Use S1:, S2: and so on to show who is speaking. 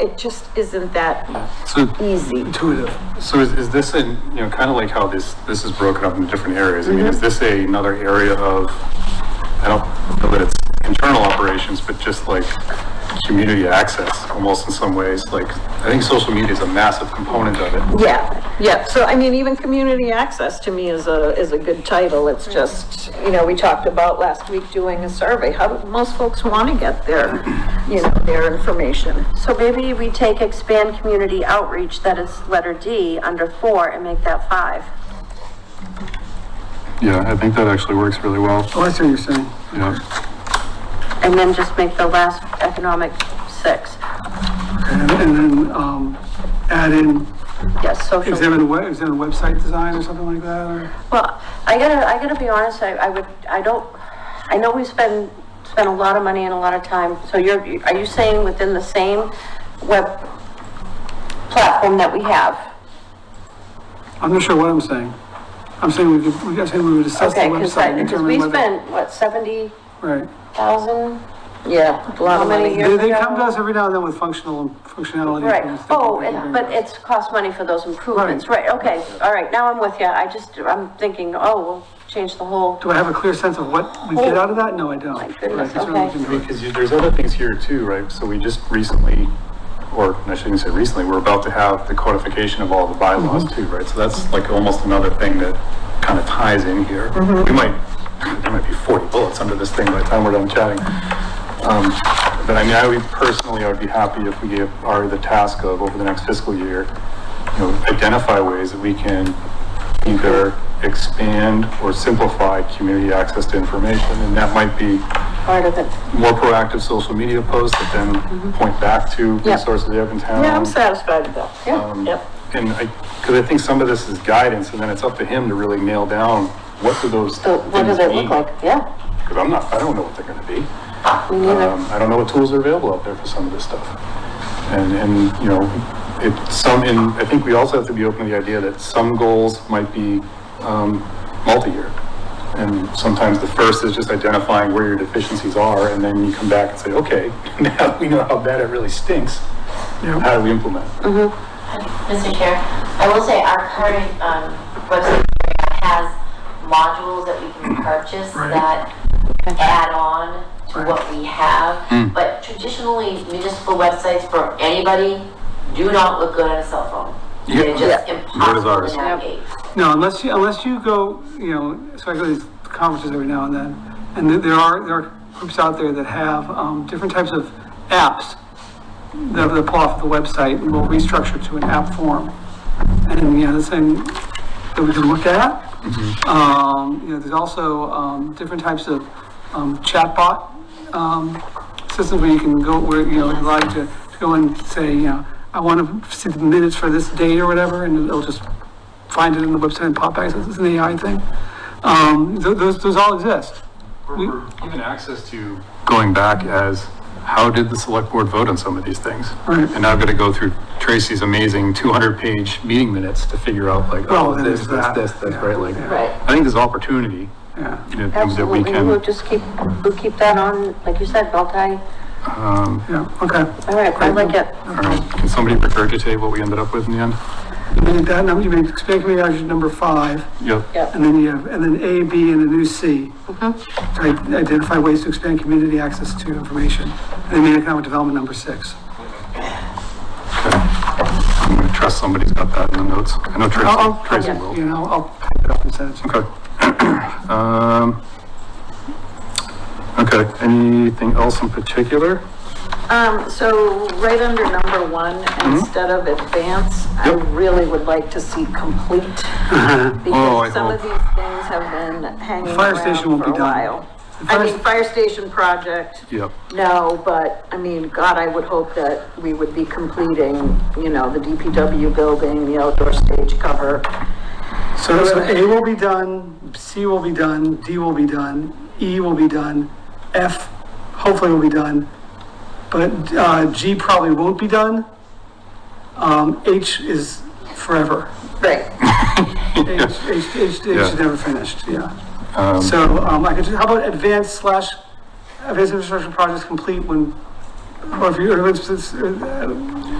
S1: it just isn't that
S2: So
S1: easy.
S2: intuitive. So is, is this a, you know, kind of like how this, this is broken up into different areas? I mean, is this a- another area of, I don't know that it's internal operations, but just like community access almost in some ways? Like, I think social media is a massive component of it.
S1: Yeah, yeah, so I mean, even community access to me is a, is a good title, it's just, you know, we talked about last week doing a survey, how, most folks want to get their, you know, their information.
S3: So maybe we take expand community outreach, that is letter D, under four, and make that five.
S2: Yeah, I think that actually works really well.
S4: Oh, I see what you're saying.
S2: Yeah.
S3: And then just make the last economic six.
S4: And and then, um, add in
S3: Yes, social.
S4: examine, we- examine website design or something like that, or?
S3: Well, I gotta, I gotta be honest, I, I would, I don't, I know we spend, spend a lot of money and a lot of time, so you're, are you saying within the same web platform that we have?
S4: I'm not sure what I'm saying. I'm saying we, could- we- I'm saying we would assess the
S3: Okay, cause
S4: website
S3: I,
S4: and
S3: cause
S4: determine
S3: we
S4: whether.
S3: spent, what, seventy
S4: Right.
S3: thousand?
S1: Yeah, a lot
S3: How
S1: of
S3: many
S1: money.
S3: years?
S4: They, they come to us every now and then with functional, functionality.
S3: Right,
S4: things that
S3: oh,
S4: we can
S3: and-
S4: do.
S3: but it's cost money for those improvements, right, okay, all right, now I'm with you, I just, I'm thinking, oh, we'll change the whole,
S4: Do I have a clear sense of what we
S3: Oh.
S4: get out of that? No, I don't.
S3: goodness,
S4: Right, that's what we
S3: okay.
S4: can do.
S2: Because you- there's other things here too, right? So we just recently, or I shouldn't say recently, we're about to have the codification of all the bylaws too, right? So that's like almost another thing that kind of ties in here. We might, there might be 40 bullets under this thing by the time we're done chatting. Um, But I mean, I would personally, I would be happy if we gave Ari the task of over the next fiscal year, you know, identify ways that we can either expand or simplify community access to information. And that might be
S3: part of it.
S2: more proactive social media posts that
S3: Mm-hmm.
S2: then point back to
S3: Yep.
S2: resources you have in town.
S1: Yeah, I'm satisfied with that.
S2: Um,
S1: Yep.
S2: And I, because I think some of this is guidance, and then it's up to him to really nail down, what do those
S3: So what
S2: things
S3: does it
S2: mean?
S3: look like? Yeah,
S2: Because I'm not, I don't know what they're gonna be.
S3: me neither.
S2: Um, I don't know what tools are available out there for some of this stuff. And, and, you know, it, some, and I think we also have to be open to the idea that some goals might be, um, multi-year. And sometimes the first is just identifying where your deficiencies are, and then you come back and say, okay, now we know how bad it really stinks. How do we implement? it?
S5: Mr. Chair, I will say our current um, website has modules that we can purchase
S4: Right.
S5: that add on to what we have. But traditionally municipal websites for anybody do not look good on a cell phone. They're just
S2: Yeah. Nor does
S5: impossible
S2: ours.
S5: to navigate.
S4: No, unless you, unless you go, you know, so I go to these conferences every now and then, and there- there are, there are groups out there that have, um, different types of apps that that pull off the website and will restructure to an app form. And, you know, the thing that we can look at. Um, you know, there's also, um, different types of, um, chatbot, um, systems where you can go, where, you know, you like to to go and say, you know, I want to see the minutes for this date or whatever, and it'll just find it in the website and pop back, so it's an AI thing. Um, tho- those, those all exist. We-
S2: Even access to. Going back as, how did the select board vote on some of these things?
S4: Right.
S2: And now I've got to go through Tracy's amazing 200-page meeting minutes to figure out like,
S4: Well,
S2: oh,
S4: then
S2: this,
S4: there's
S2: this,
S4: that.
S2: this, this, right? Like,
S1: Right.
S2: I think there's opportunity
S4: Yeah.
S2: you know, things that we
S3: absolutely, we'll
S2: can,
S3: just keep, we'll keep that on, like you said, multi,
S2: um,
S4: Yeah, okay.
S3: all right, I like it.
S2: all right. can somebody regurgitate what we ended up with in the end?
S4: You made that number, you made expand community action number five,
S2: Yep.
S4: and then you have, and then A, B, and a new C. To i- Identify ways to expand community access to information. And then main economic development number six.
S2: I'm gonna trust somebody's got that in the notes. I know
S4: I'll,
S2: Tracy,
S4: I'll,
S2: Tracy will.
S4: you know, I'll type it up and send it to you.
S2: Okay. Um, okay, anything else in particular?
S1: Um, so right under number one,
S4: Mm-hmm.
S1: instead of advance, I
S2: Yep.
S1: really would like to see complete.
S4: Uh-huh.
S2: Oh, I
S1: Because some of
S2: hope.
S1: these things have been hanging
S4: Fire
S1: around
S4: station won't
S1: for a
S4: be done.
S1: while.
S4: The
S1: I
S4: fire-
S1: mean, fire station project,
S2: Yep.
S1: no, but I mean, God, I would hope that we would be completing, you know, the DPW building, the outdoor stage cover.
S4: So, so A will be done, C will be done, D will be done, E will be done, F hopefully will be done, but uh, G probably won't be done. Um, H is forever.
S1: Right.
S4: H, H, H, H is
S2: Yeah.
S4: never finished, yeah. So um, I could, how about advanced slash, advanced infrastructure projects complete when or if you, or if it's, it's, uh,